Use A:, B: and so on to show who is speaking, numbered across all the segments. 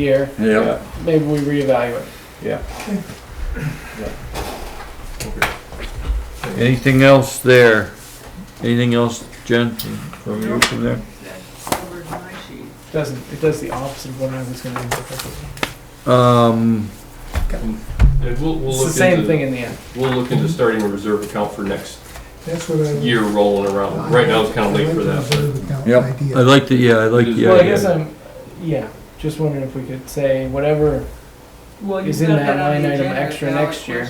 A: year,
B: Yeah,
A: maybe we reevaluate.
C: Yeah. Yeah. Okay.
B: anything else there? Anything else, Jen, from you from there?
D: covered my sheet.
A: Doesn't, it does the opposite of what I was gonna do.
B: Um,
E: And we'll, we'll
A: It's the
E: look
A: same
E: into-
A: thing in the end.
E: We'll look into starting a reserve account for next
F: That's what I.
E: year rolling around. Right now, it's kind of late for that, but
B: Yep. I'd like to, yeah, I'd like,
A: Well, I
B: yeah,
A: guess
B: yeah.
A: I'm, yeah, just wondering if we could say whatever,
D: Well,
A: Is
D: you've
A: in
D: got
A: that
D: on
A: line
D: the
A: item
D: agenda,
A: extra
D: ballot
A: next year?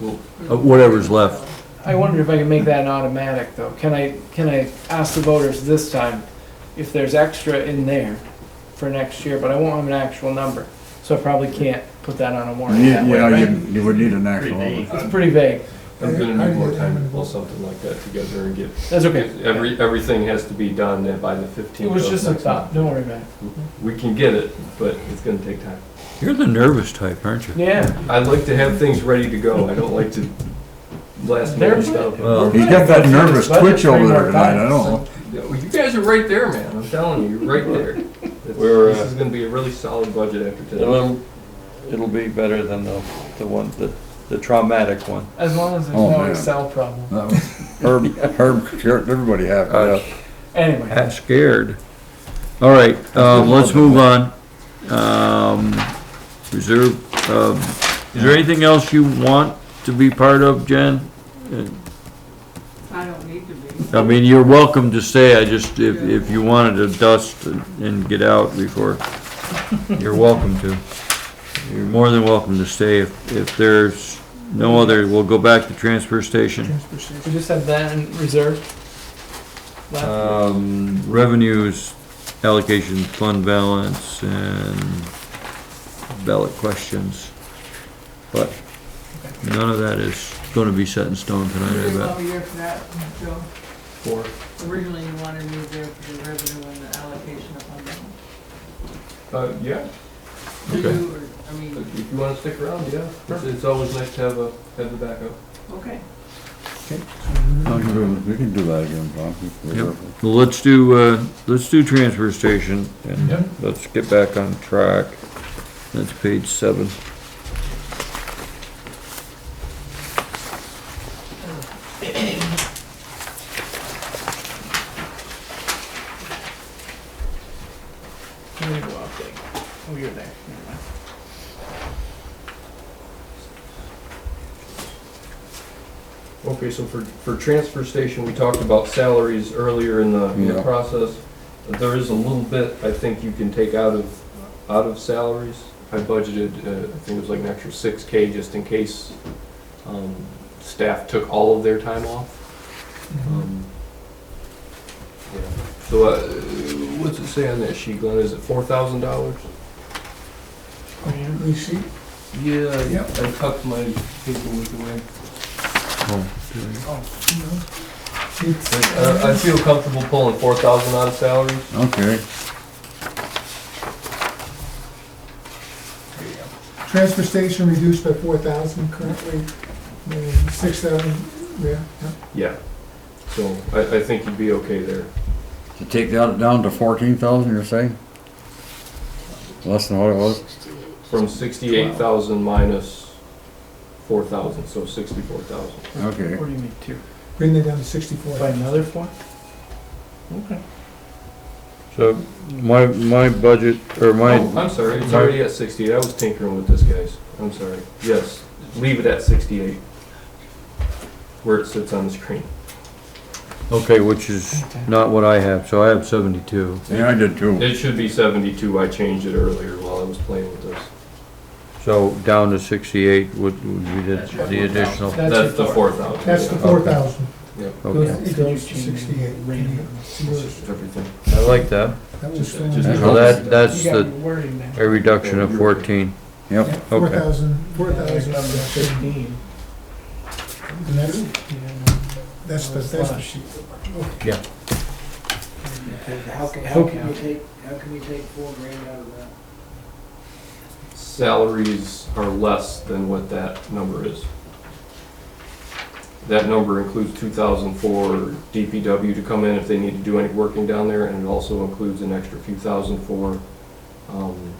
E: we'll,
D: questions.
B: Uh, whatever's left.
A: I wonder if I can make that an automatic though. Can I, can I ask the voters this time if there's extra in there for next year, but I won't have an actual number. So I probably can't put that on a warrant
B: Yeah,
A: that way,
B: yeah,
A: right?
B: you, you would need an actual one.
A: It's pretty vague.
E: I'm gonna need more time to pull something like that together and get,
A: That's okay.
E: every, everything has to be done by the fifteenth.
A: It was just a thought, don't worry about it.
E: We can get it, but it's gonna take time.
B: You're the nervous type, aren't you?
A: Yeah,
E: I like to have things ready to go. I don't like to last
A: They're-
E: minute stuff.
B: Well,
A: He's
B: he's
A: got
B: got
A: that
B: that
A: nervous
B: nervous
A: twitch
B: twitch
A: over
B: over
A: there
B: there
A: tonight,
B: tonight, I don't
E: Yeah, well, You guys are right there, man. I'm telling you, you're right there. It's-
C: We're, uh,
E: This is gonna be a really solid budget after today.
B: um,
C: It'll, it'll be better than the, the one, the, the traumatic one.
A: as long as there's
B: Oh,
A: no
B: man.
A: Excel problem.
B: know. Herb, Herb, sure, everybody happy,
G: Uh,
B: yeah.
A: Anyway.
B: Half scared. All right, um, let's move on. Um, reserve, um, is there anything else you want to be part of, Jen?
D: I don't need to be.
B: I mean, you're welcome to stay, I just, if, if you wanted to dust and- and get out before, you're welcome to. You're more than welcome to stay, if, if there's no other, we'll go back to transfer station.
A: We just have that in reserve. left.
B: Um, revenues, allocation, fund balance, and ballot questions. But none of that is gonna be set in stone tonight, I
D: There's
B: bet.
D: no year for that, Joe.
E: Four.
D: Originally, you wanted me there for the revenue and the allocation of fund balance.
E: Uh, yeah,
D: Do
B: Okay.
D: you, or, I mean,
E: if you wanna stick around, yeah. It's, it's always nice to have a, have the backup.
D: okay.
G: We can do that again, Tom.
B: Yep. Well, let's do, uh, let's do transfer station
E: Yep.
B: and let's get back on track. That's page seven.
A: Let me go up there. Oh, you're there. Never mind.
E: Okay, so for, for transfer station, we talked about salaries earlier in the, in the
G: Yeah.
E: process. There is a little bit, I think you can take out of, out of salaries. I budgeted, uh, I think it was like an extra six K just in case, um, staff took all of their time off. Um, yeah. So, uh, what's it say on that sheet, Glenn? Is it four thousand dollars?
F: You see,
E: Yeah, I tucked my paperwork away.
F: it's,
E: Uh, I feel comfortable pulling four thousand out of salaries.
G: Okay,
F: transfer station reduced by four thousand currently, six thousand, yeah, yeah.
E: Yeah, so I, I think you'd be okay there.
G: to take that down to fourteen thousand, you're saying? Less than what it was?
E: From sixty-eight thousand minus four thousand, so sixty-four thousand.
G: Okay.
A: What do you mean, two?
F: bring that down to sixty-four.
A: By another four? Okay.
B: So my, my budget, or
E: Oh, I'm sorry, it's already at sixty-eight, I was tinkering with this, guys, I'm sorry. Yes, leave it at sixty-eight. Where it sits on the screen.
B: Okay, which is not what I have, so I have seventy-two.
G: Yeah, I did too.
E: It should be seventy-two, I changed it earlier while I was playing with this.
B: So down to sixty-eight would, would be the, the additional.
E: That's the
A: four.
E: four thousand.
F: That's the four thousand,
B: Okay,
F: it goes to sixty-eight.
A: Random.
F: Yours,
E: Everything.
B: I like that.
F: That was
E: Just-
F: thrown
E: just-
F: out.
B: So that, that's
A: You got
B: the,
A: your wording there.
B: a reduction of fourteen.
F: Yeah,
G: Yep,
F: Four thousand, four
A: That was
F: thousand,
A: number fifteen.
F: and that's, that's the, that's the sheet.
H: How can, how can you take, how can you take four grand out of that?
E: salaries are less than what that number is. That number includes two thousand for DPW to come in if they need to do any working down there, and it also includes an extra few thousand for, um,